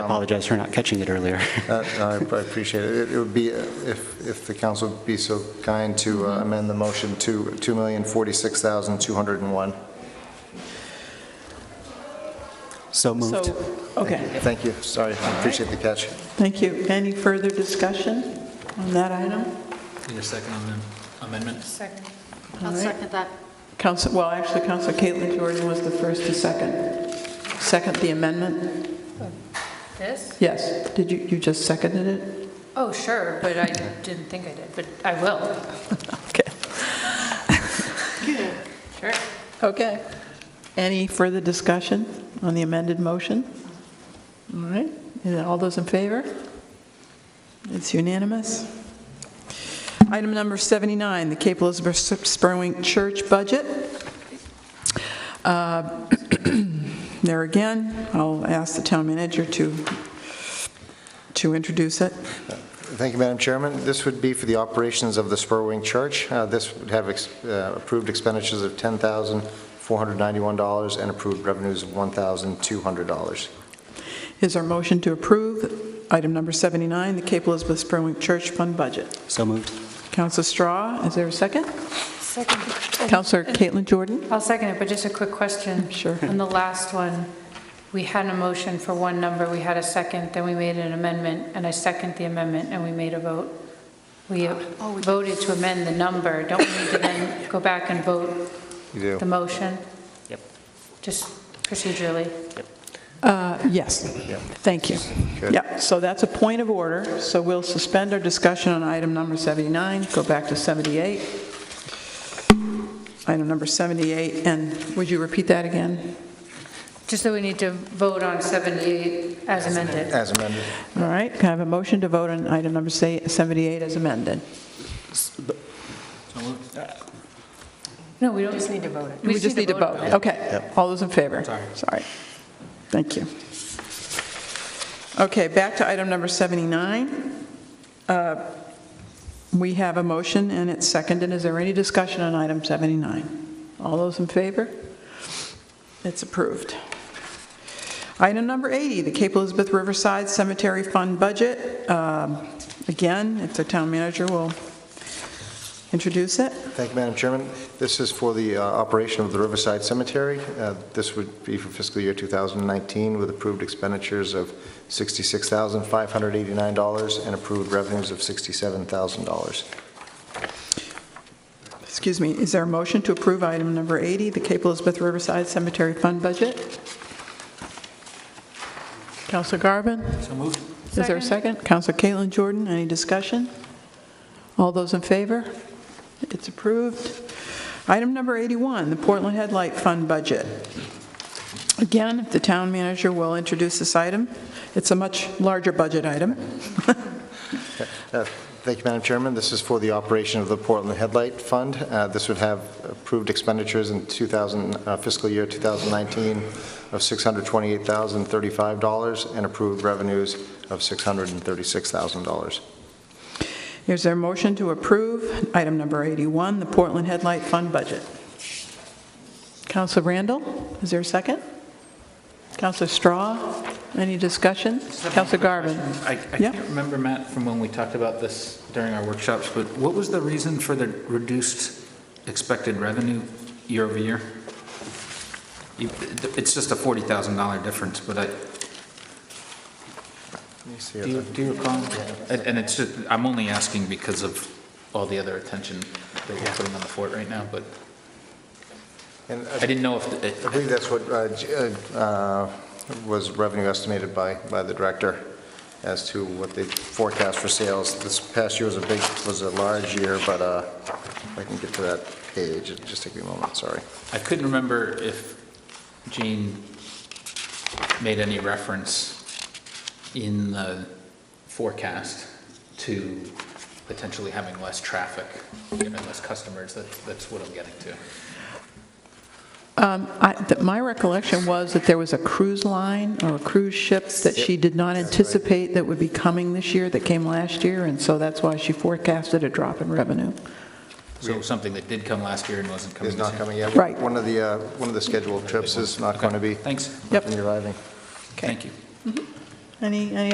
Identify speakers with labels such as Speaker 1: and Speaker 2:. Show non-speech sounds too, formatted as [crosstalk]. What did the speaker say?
Speaker 1: apologize for not catching it earlier. [laughs]
Speaker 2: Uh, no, I I appreciate it. It- It would be, uh, if, if the council would be so kind to uh, amend the motion to $2,046,201.
Speaker 1: So moved.
Speaker 3: So, okay,
Speaker 2: Thank you, sorry, I appreciate the catch.
Speaker 3: thank you. Any further discussion on that item?
Speaker 4: Need a second on the amendment?
Speaker 5: Second.
Speaker 3: All
Speaker 5: I'll
Speaker 3: right.
Speaker 5: second that.
Speaker 3: Council, well, actually, Council Caitlin Jordan was the first to second. Second the amendment?
Speaker 5: This?
Speaker 3: Yes. Did you, you just seconded it?
Speaker 5: Oh, sure, but I didn't think I did, but I will.
Speaker 3: Okay.
Speaker 5: Sure.
Speaker 3: Okay. Any further discussion on the amended motion? All right, And all those in favor? It's unanimous. Item number 79, the Cape Elizabeth Spurwink Church budget. Uh, [clears throat] There again, I'll ask the town manager to, to introduce it.
Speaker 2: Thank you, Madam Chairman. This would be for the operations of the Spurwing Church. Uh, This would have ex- uh, approved expenditures of $10,491 and approved revenues of $1,200.
Speaker 3: Is our motion to approve item number 79, the Cape Elizabeth Spurwink Church Fund budget?
Speaker 1: So moved.
Speaker 3: Counselor Straw, is there a second?
Speaker 5: Second.
Speaker 3: Counselor Caitlin Jordan?
Speaker 5: I'll second it, but just a quick question.
Speaker 3: Sure.
Speaker 5: On the last one, we had a motion for one number, we had a second, then we made an amendment, and I second the amendment, and we made a vote. Oh, We voted to amend the number. Don't we need to then go back and vote
Speaker 2: You
Speaker 5: the
Speaker 2: do?
Speaker 5: motion?
Speaker 1: Yep.
Speaker 5: Just procedurally.
Speaker 3: Uh, Yes. Thank you.
Speaker 2: Good.
Speaker 3: Yeah, so that's a point of order, so we'll suspend our discussion on item number 79, go back to 78. Item number 78, and would you repeat that again?
Speaker 5: Just that we need to vote on 78 as amended.
Speaker 2: As amended.
Speaker 3: All right, can I have a motion to vote on item number se- 78 as amended?
Speaker 5: No, we don't. just need to vote it.
Speaker 3: We just need to vote.
Speaker 5: on it.
Speaker 3: Okay. All those in favor?
Speaker 4: Sorry.
Speaker 3: Sorry. Thank you. Okay, back to item number 79. Uh, We have a motion and it's seconded. Is there any discussion on item 79? All those in favor? It's approved. Item number 80, the Cape Elizabeth Riverside Cemetery Fund Budget. Um, Again, if the town manager will introduce it.
Speaker 2: Thank you, Madam Chairman. This is for the uh, operation of the Riverside Cemetery. Uh, This would be for fiscal year 2019 with approved expenditures of $66,589 and approved revenues of $67,000.
Speaker 3: Excuse me, is there a motion to approve item number 80, the Cape Elizabeth Riverside Cemetery Fund budget? Counselor Garvin?
Speaker 4: So moved?
Speaker 3: Is there a second? Counselor Caitlin Jordan, any discussion? All those in favor? It's approved. Item number 81, the Portland Headlight Fund budget. Again, if the town manager will introduce this item, it's a much larger budget item.
Speaker 2: Uh, Thank you, Madam Chairman. This is for the operation of the Portland Headlight Fund. Uh, This would have approved expenditures in 2000 uh, fiscal year 2019 of $628,035 and approved revenues of $636,000.
Speaker 3: Is there a motion to approve item number 81, the Portland Headlight Fund budget? Counselor Randall, is there a second? Counselor Straw, any discussion? Counselor Garvin?
Speaker 4: I I
Speaker 3: Yeah.
Speaker 4: can't remember, Matt, from when we talked about this during our workshops, but what was the reason for the reduced expected revenue year over year? You- It's just a $40,000 difference, but I,
Speaker 2: Let me see
Speaker 4: do you-
Speaker 2: if I-
Speaker 4: do you recall? And and it's, just- I'm only asking because of all the other attention that we're putting on the fort right now, but
Speaker 2: and I
Speaker 4: I didn't know if, it-
Speaker 2: I believe that's what uh, J- uh, uh, was revenue estimated by, by the director as to what they forecast for sales. This past year was a big, was a large year, but uh, if I can get to that page, it'll just take me a moment, sorry.
Speaker 4: I couldn't remember if Jean made any reference in the forecast to potentially having less traffic, and less customers, That- that's what I'm getting to.
Speaker 3: Um, I- th- My recollection was that there was a cruise line or a cruise ship that she did not anticipate that would be coming this year, that came last year, and so that's why she forecasted a drop in revenue.
Speaker 4: So something that did come last year and wasn't coming
Speaker 2: It's
Speaker 4: this
Speaker 2: not
Speaker 4: year.
Speaker 2: coming yet.
Speaker 3: Right.
Speaker 2: One of the, uh, one of the scheduled trips is not
Speaker 4: Okay,
Speaker 2: going to be.
Speaker 4: Thanks,
Speaker 3: Yep.
Speaker 2: When you're arriving.
Speaker 4: thank you.
Speaker 3: Any, any